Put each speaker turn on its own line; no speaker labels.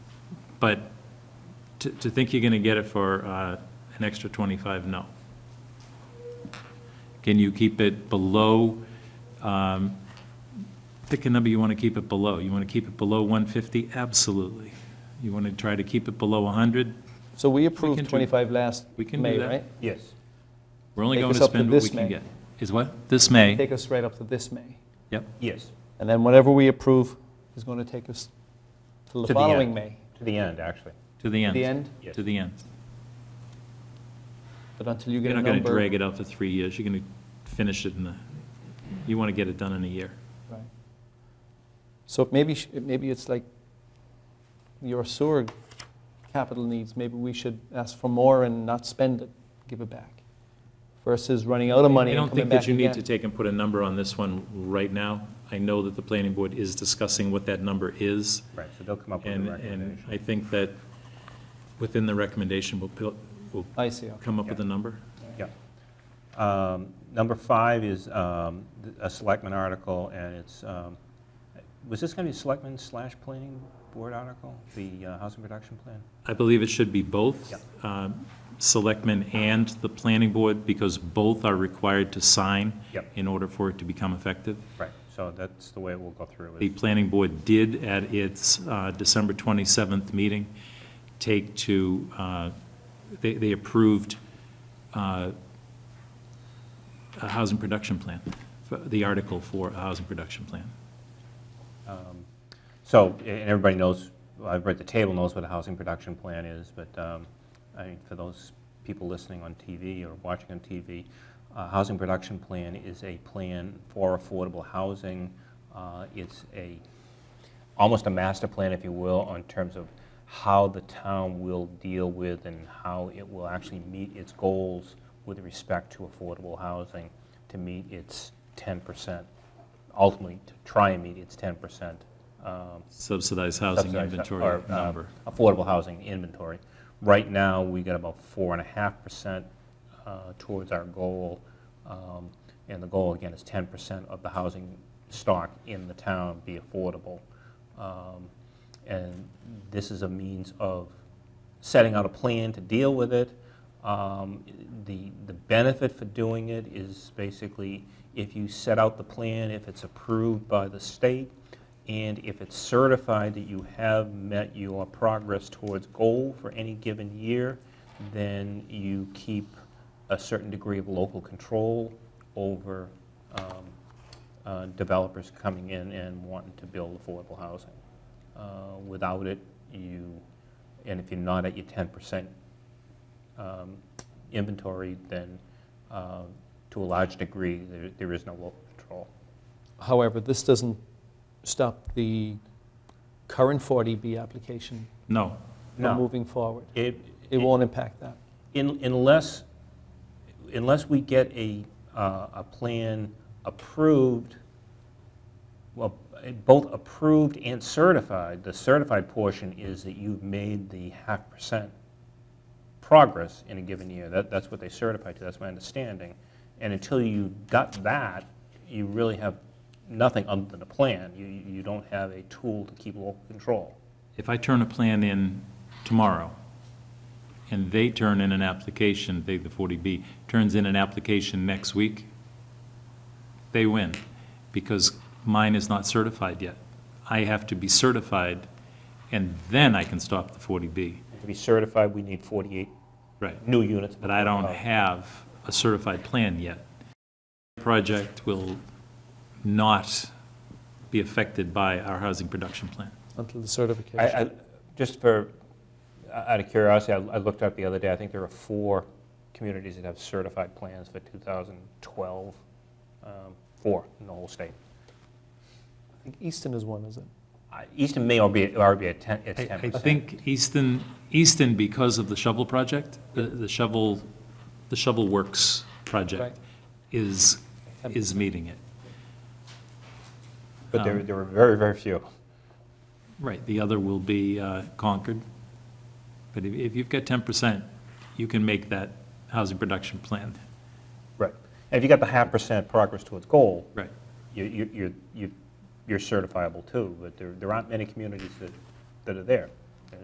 But to, to think you're gonna get it for, uh, an extra twenty-five, no. Can you keep it below, um, pick a number you wanna keep it below. You wanna keep it below one fifty? Absolutely. You wanna try to keep it below hundred?
So we
can
approved
do-
25 last
we can do
May,
that.
right?
Yes.
We're only
Take
going
us
to
up to
spend what we
this
can
May.
get. Is what? This May?
Take us right up to this May.
Yep.
Yes,
And then whatever we approve is going to take us to
To
the
the
following
end.
May.
to the end, actually.
To the
To
end.
the end,
Yes.
To the end.
but until you get
You're
a
not going
number.
to drag it out for three years. You're going to finish it in the, you want to get it done in a year.
Right. So maybe, sh- maybe it's like your sewer capital needs, maybe we should ask for more and not spend it, give it back, versus running out of money
I
and
don't
coming
think
back
that you need to
again.
take and put a number on this one right now. I know that the planning board is discussing what that number is,
Right, so they'll come up with a
and, and
recommendation.
I think that within the recommendation, we'll, pil- we'll
I see, okay.
come up with a number.
Yeah. Um, Number five is um, th- a selectman article, and it's, um, was this going to be selectman slash planning board article, the uh, housing production plan?
I believe it should be both.
Yeah.
um, Selectmen and the planning board, because both are required to sign
Yep.
in order for it to become effective.
Right, so that's the way we'll go through
The
it.
planning board did at its uh, December 27th meeting take to, uh, they they approved uh, a housing production plan, for- the article for a housing production plan.
So, a- and everybody knows, well, everybody at the table knows what a housing production plan is, but um, I mean, for those people listening on TV or watching on TV, a housing production plan is a plan for affordable housing. Uh, It's a, almost a master plan, if you will, on terms of how the town will deal with and how it will actually meet its goals with respect to affordable housing to meet its 10%, ultimately to try and meet its 10% um,
Subsidized housing
subsidized-
inventory
or, uh,
number.
Affordable housing inventory. Right now, we got about four and a half percent uh, towards our goal. um, And the goal, again, is ten percent of the housing stock in the town be affordable. Um, And this is a means of setting out a plan to deal with it. Um, The, the benefit for doing it is basically, if you set out the plan, if it's approved by the state, and if it's certified that you have met your progress towards goal for any given year, then you keep a certain degree of local control over um, uh, developers coming in and wanting to build affordable housing. Uh, Without it, you, and if you're not at your 10% um, inventory, then uh, to a large degree, there there is no local control.
However, this doesn't stop the current 40B application
No,
No.
from moving forward.
It
It won't impact that.
In- Unless, unless we get a, uh, a plan approved, well, eh, both approved and certified, the certified portion is that you've made the half percent progress in a given year. That, that's what they certify to, that's my understanding. And until you got that, you really have nothing other than a plan. You, you don't have a tool to keep local control.
if I turn a plan in tomorrow, and they turn in an application, they, the 40B, turns in an application next week, they win, because mine is not certified yet. I have to be certified, and then I can stop the 40B.
To be certified, we need 48
Right.
new units.
But I don't
Uh,
have a certified plan yet. Project will not be affected by our housing production plan.
Until the
I,
certification.
I, just for, out of curiosity, I I looked up the other day, I think there are four communities that have certified plans for 2012, um, four in the whole state.
I think Easton is one, is it?
I- Easton may already be, already be at 10, it's
I-
10%.
I think Easton, Easton, because of the shovel project, the- the shovel, the shovel works
Right.
project is, is meeting it.
But
um,
there, there were very, very few.
Right, the other will be uh, Concord. But if- if you've got 10%, you can make that housing production plan.
Right. And if you got the half percent progress towards goal,
Right.
you, you, you're- you, you're certifiable too, but there, there aren't many communities that, that are there.